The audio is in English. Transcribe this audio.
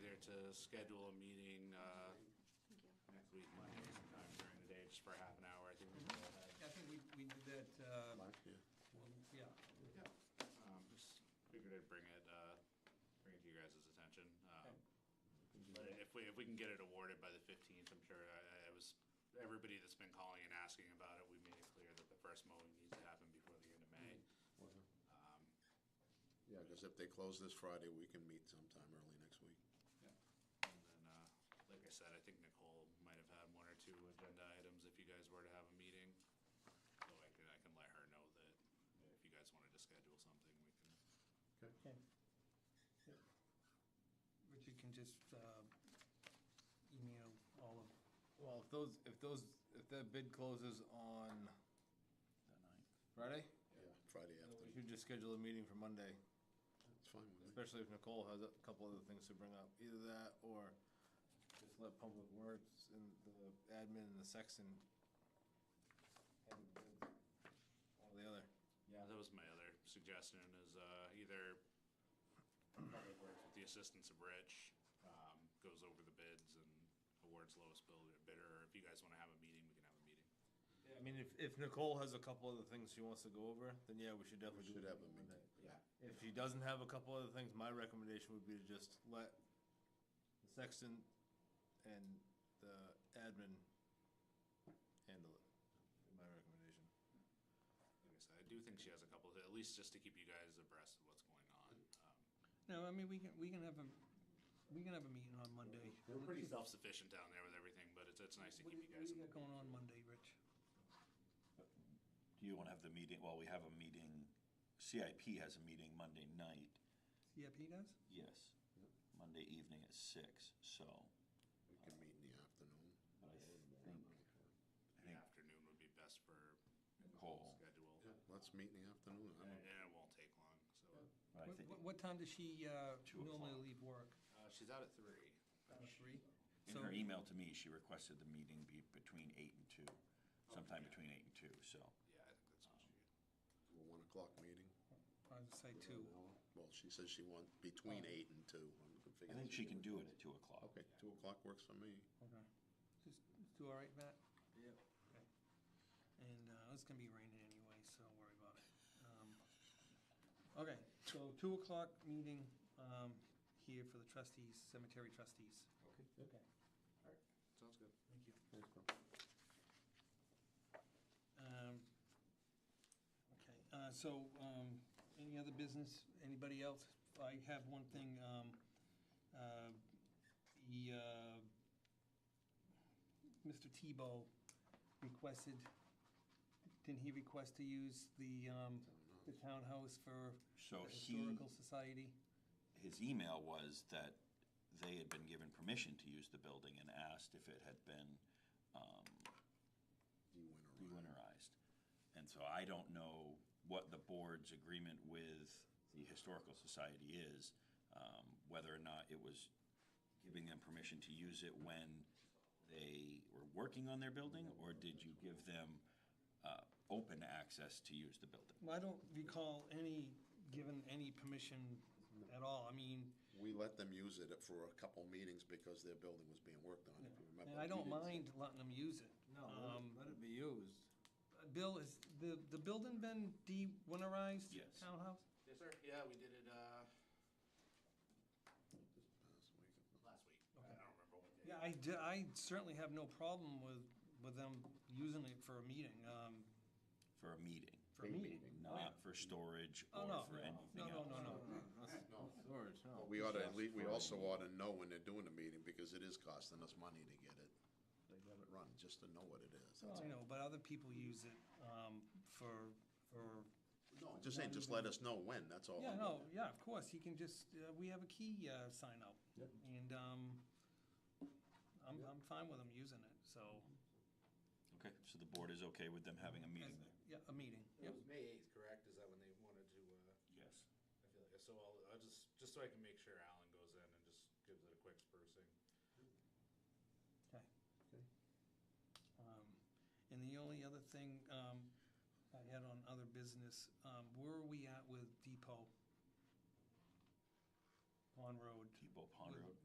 to schedule a meeting, uh, next week, Monday, sometime during the day, just for half an hour, I think we can go ahead. I think we, we did that, uh, well, yeah. Um, just figured I'd bring it, uh, bring it to you guys' attention. Um, Okay. But if we, if we can get it awarded by the fifteenth, I'm sure, I, I was, everybody that's been calling and asking about it, we made it clear that the first mowing needs to happen before the end of May. Um, Yeah, because if they close this Friday, we can meet sometime early next week. yeah. And then, uh, like I said, I think Nicole might have had one or two agenda items if you guys were to have a meeting. So I can, I can let her know that if you guys wanted to schedule something, we can. Okay. Richard can just uh, email all of, Well, if those, if those, if that bid closes on The ninth. Friday, Yeah, Friday we afternoon, should just schedule a meeting for Monday, it's fine with me. especially if Nicole has a couple other things to bring up. Either that or just let Public Works and the admin and the sexton handle the bids. One or the other. Yeah, that was my other suggestion is, uh, either Public Works with the assistance of Rich, um, goes over the bids and awards lowest bidder- bidder, or if you guys wanna have a meeting, we can have a meeting. I mean, if, if Nicole has a couple other things she wants to go over, then yeah, we should definitely do should it have a on Monday. meeting. Yeah. If she doesn't have a couple other things, my recommendation would be to just let the sexton and the admin handle it. My recommendation. Like I said, I do think she has a couple, at least just to keep you guys abreast of what's going on. Um, no, I mean, we can, we can have a, we can have a meeting on Monday. We're pretty self-sufficient down there with everything, but it's, it's nice to What do keep you you what guys. do you got going on Monday, Rich? Do you want to have the meeting, well, we have a meeting, CIP has a meeting Monday night, CIP does? yes, Monday evening at six, so, We can meet in the afternoon. but I think, I The think afternoon would be best for Nicole, schedule. Yeah, let's meet in the afternoon. I And don't- and it won't take long, so. What- I think- What, what time does she uh, Two normally o'clock. leave work? Uh, she's out at three. Oh, Three? in So- her e- email to me, she requested the meeting be between eight and two, sometime between eight and two, so. Yeah, I think that's what she, A one o'clock meeting. I would say two. Oh. Well, she says she wants between eight and two. I'm gonna figure I think that she out. can do it at two o'clock. Okay, two o'clock works for me. Okay. Just, just do all right, Matt? Yep. Okay. And uh, it's gonna be raining anyway, so don't worry about it. Um, Okay, so two o'clock meeting um, here for the trustees, cemetery trustees. Okay. Okay. sounds good. Thank you. Thanks, Bill. Um, Okay, uh, so, um, any other business, anybody else? I have one thing, um, uh, the, uh, Mr. Tebow requested, didn't he request to use the, um, the townhouse for So the he- Historical Society? his email was that they had been given permission to use the building and asked if it had been um, You went around. winterized. And so I don't know what the board's agreement with the Historical Society is, um, whether or not it was giving them permission to use it when they were working on their building, or did you give them uh, open access to use the building? Well, I don't recall any, given any permission at all, I mean, We let them use it for a couple meetings because their building was being worked on, if you remember. and I don't You didn't- mind letting them use it. Um, let it be used. Bill, is the, the building been de-winterized? Yes. Townhouse? Yes, sir. Yeah, we did it, uh, This past week. last week. I don't remember what day. Yeah, I, d- I certainly have no problem with, with them using it for a meeting, um, For a meeting, for a meeting. not for storage Oh, or no, for no, anything no, no, else. no, no. No, storage, Um, no. Oh, But we ought to, we also ought to know when they're doing the meeting, because it is costing us money to get it. They let it run, just to know what it is. I know, but other people use it, um, for, for, No, just saying, just let us know when, that's all. yeah, no, yeah, of course, you can just, uh, we have a key, uh, sign up. And, um, I'm, I'm fine with them using it, so. Okay, so the board is okay with them having a meeting there? Yeah, a meeting, yep. May eighth, correct? Is that when they wanted to, uh? Yes. I feel like, so I'll, I'll just, just so I can make sure Alan goes in and just gives it a quick sprucing. Okay. Um, And the only other thing um, I had on other business, um, where are we at with Depot? On Road? Depot Pond Road.